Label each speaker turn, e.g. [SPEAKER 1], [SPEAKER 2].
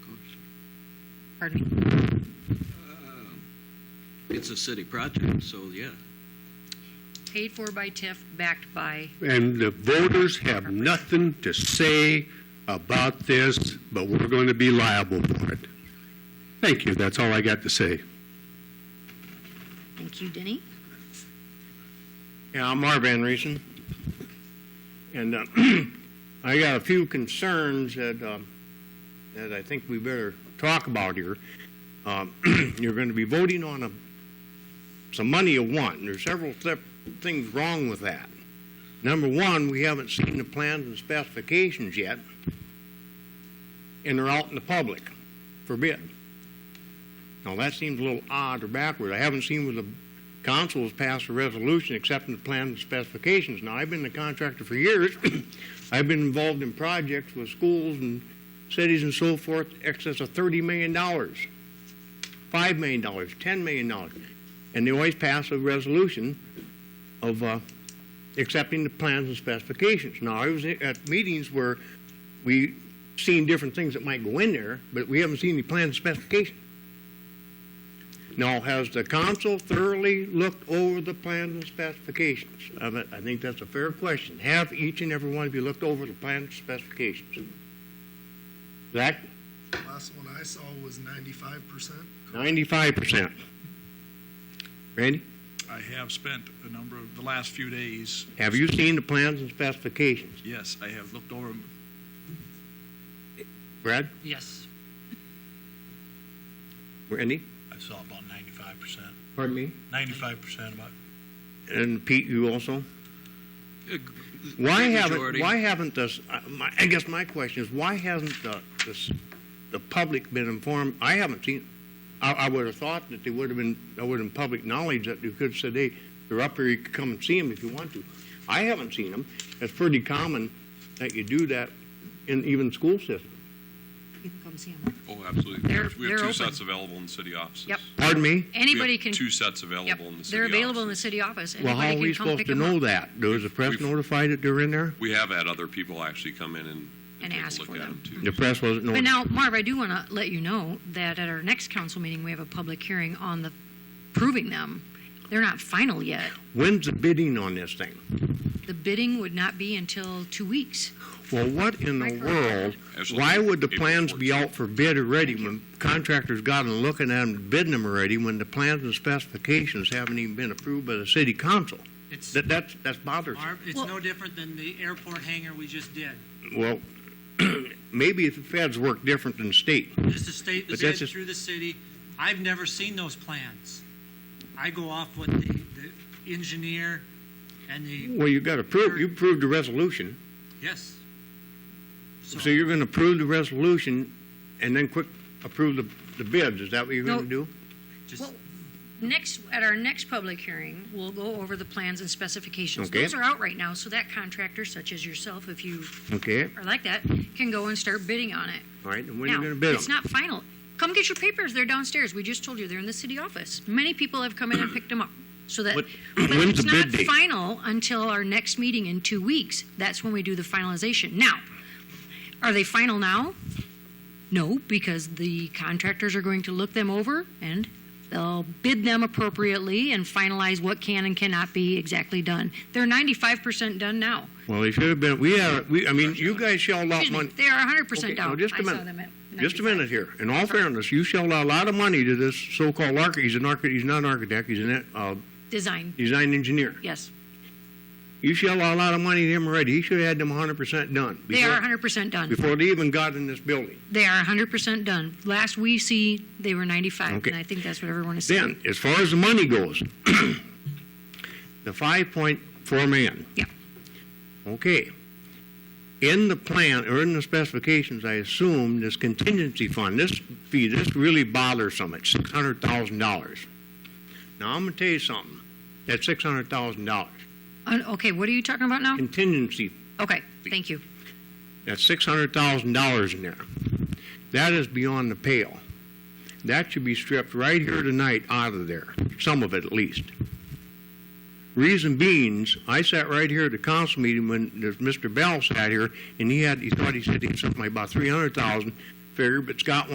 [SPEAKER 1] pardon me.
[SPEAKER 2] It's a city project, so yeah.
[SPEAKER 1] Paid for by TIF, backed by,
[SPEAKER 3] and the voters have nothing to say about this, but we're going to be liable for it. Thank you, that's all I got to say.
[SPEAKER 1] thank you, Denny.
[SPEAKER 4] Yeah, I'm Marv Van Reesen. And uh, I got a few concerns that, um, that I think we better talk about here. Um, You're going to be voting on a, some money you want, and there's several sep- things wrong with that. Number one, we haven't seen the plans and specifications yet, and they're out in the public for bid. Now, that seems a little odd or backward. I haven't seen what the council has passed a resolution accepting the plan and specifications. Now, I've been a contractor for years. I've been involved in projects with schools and cities and so forth, excess of $30 million, $5 million, $10 million. And they always pass a resolution of uh, accepting the plans and specifications. Now, I was at meetings where we seen different things that might go in there, but we haven't seen the plans and specifications. Now, has the council thoroughly looked over the plans and specifications? I mean, I think that's a fair question. Have each and every one of you looked over the plans and specifications? Zach,
[SPEAKER 5] Last one I saw was ninety-five percent.
[SPEAKER 4] ninety-five percent. Randy,
[SPEAKER 6] I have spent a number of, the last few days,
[SPEAKER 4] have you seen the plans and specifications?
[SPEAKER 6] yes, I have looked over 'em.
[SPEAKER 4] Brad,
[SPEAKER 1] Yes.
[SPEAKER 4] Randy?
[SPEAKER 7] I saw about ninety-five percent,
[SPEAKER 4] Pardon me?
[SPEAKER 7] ninety-five percent about.
[SPEAKER 4] And Pete, you also?
[SPEAKER 2] Ag-
[SPEAKER 4] Why
[SPEAKER 2] great
[SPEAKER 4] haven't,
[SPEAKER 2] majority.
[SPEAKER 4] why haven't this, I- my- I guess my question is, why hasn't the, this, the public been informed? I haven't seen, I, I would have thought that they would have been, that would have been public knowledge that you could say, hey, they're up here, you can come and see them if you want to. I haven't seen them. It's pretty common that you do that in even school systems.
[SPEAKER 1] You can come see him.
[SPEAKER 8] Oh, absolutely.
[SPEAKER 1] They're-
[SPEAKER 8] We have
[SPEAKER 1] they're
[SPEAKER 8] two
[SPEAKER 1] open.
[SPEAKER 8] sets available in the city offices.
[SPEAKER 1] Yep.
[SPEAKER 4] Pardon me?
[SPEAKER 8] We have
[SPEAKER 1] Anybody can,
[SPEAKER 8] Two sets
[SPEAKER 1] yep,
[SPEAKER 8] available in the city offices.
[SPEAKER 1] they're available in the city office.
[SPEAKER 4] Well, how are
[SPEAKER 1] Anybody
[SPEAKER 4] we
[SPEAKER 1] can come
[SPEAKER 4] supposed
[SPEAKER 1] pick
[SPEAKER 4] to
[SPEAKER 1] them
[SPEAKER 4] know
[SPEAKER 1] up
[SPEAKER 4] that? Was the press
[SPEAKER 8] We've-
[SPEAKER 4] notified that they're in there?
[SPEAKER 8] We have had other people actually come in and.
[SPEAKER 1] and
[SPEAKER 8] take a
[SPEAKER 1] ask
[SPEAKER 8] look
[SPEAKER 1] for
[SPEAKER 8] at
[SPEAKER 1] them.
[SPEAKER 8] too.
[SPEAKER 4] The press wasn't
[SPEAKER 1] But
[SPEAKER 4] notified.
[SPEAKER 1] now, Marv, I do want to let you know that at our next council meeting, we have a public hearing on the, proving them. They're not final yet.
[SPEAKER 4] When's the bidding on this thing?
[SPEAKER 1] The bidding would not be until two weeks.
[SPEAKER 4] Well, what in the
[SPEAKER 1] Micro-
[SPEAKER 4] world,
[SPEAKER 8] Absolutely.
[SPEAKER 4] why would the
[SPEAKER 8] April
[SPEAKER 4] plans be out for bid already when contractors got them looking at them, bidding them already, when the plans and specifications haven't even been approved by the city council?
[SPEAKER 9] It's,
[SPEAKER 4] That, that's, that's bothersome.
[SPEAKER 9] Marv, it's
[SPEAKER 1] Well-
[SPEAKER 9] no different than the airport hangar we just did.
[SPEAKER 4] Well, maybe the feds work different than state.
[SPEAKER 9] Just the state,
[SPEAKER 4] But
[SPEAKER 9] the
[SPEAKER 4] that's
[SPEAKER 9] bid
[SPEAKER 4] just-
[SPEAKER 9] through the city. I've never seen those plans. I go off what the, the engineer and the,
[SPEAKER 4] Well, you got to prove, you proved the resolution,
[SPEAKER 9] yes. So
[SPEAKER 4] so you're going to approve the resolution and then quick approve the, the bids, is that what you're going to
[SPEAKER 1] No.
[SPEAKER 4] do?
[SPEAKER 9] just,
[SPEAKER 1] Next, at our next public hearing, we'll go over the plans and specifications.
[SPEAKER 4] Okay.
[SPEAKER 1] Those are out right now, so that contractor, such as yourself, if you
[SPEAKER 4] Okay,
[SPEAKER 1] are like that, can go and start bidding on it.
[SPEAKER 4] all right, and when are you
[SPEAKER 1] Now,
[SPEAKER 4] going to bid
[SPEAKER 1] It's
[SPEAKER 4] them?
[SPEAKER 1] not final. Come get your papers. They're downstairs. We just told you they're in the city office. Many people have come in and picked them up. So that,
[SPEAKER 4] What-
[SPEAKER 1] but
[SPEAKER 4] when's
[SPEAKER 1] it's
[SPEAKER 4] the
[SPEAKER 1] not
[SPEAKER 4] bid date?
[SPEAKER 1] final until our next meeting in two weeks. That's when we do the finalization. Now, are they final now? No, because the contractors are going to look them over and they'll bid them appropriately and finalize what can and cannot be exactly done. They're 95% done now.
[SPEAKER 4] Well, they should have been, we are, we, I mean, you guys shelled out
[SPEAKER 1] Excuse me,
[SPEAKER 4] money.
[SPEAKER 1] they are 100%
[SPEAKER 4] Okay,
[SPEAKER 1] down.
[SPEAKER 4] now just a
[SPEAKER 1] I saw
[SPEAKER 4] minute.
[SPEAKER 1] them at
[SPEAKER 4] Just
[SPEAKER 1] 95.
[SPEAKER 4] a minute here. In all fairness, you shelled out a lot of money to this so-called architect. He's an architect. He's not an architect. He's a uh,
[SPEAKER 1] Design,
[SPEAKER 4] design engineer.
[SPEAKER 1] yes.
[SPEAKER 4] You shelled out a lot of money to him already. He should have had them 100% done
[SPEAKER 1] They are
[SPEAKER 4] before,
[SPEAKER 1] 100% done.
[SPEAKER 4] before they even got in this building.
[SPEAKER 1] They are 100% done. Last we see, they were 95,
[SPEAKER 4] Okay.
[SPEAKER 1] and I think that's what everyone is saying.
[SPEAKER 4] Then, as far as the money goes, the 5.4 million.
[SPEAKER 1] Yeah.
[SPEAKER 4] Okay. In the plan, or in the specifications, I assume this contingency fund, this fee, this really bothersome, it's $600,000. Now, I'm going to tell you something, that's $600,000.
[SPEAKER 1] Uh, Okay, what are you talking about now?
[SPEAKER 4] Contingency,
[SPEAKER 1] Okay, thank you.
[SPEAKER 4] that's $600,000 in there. That is beyond the pale. That should be stripped right here tonight out of there, some of it at least. Reason being's, I sat right here at the council meeting when there's Mr. Bell sat here, and he had, he thought he said he had something like about three hundred thousand figured, but Scott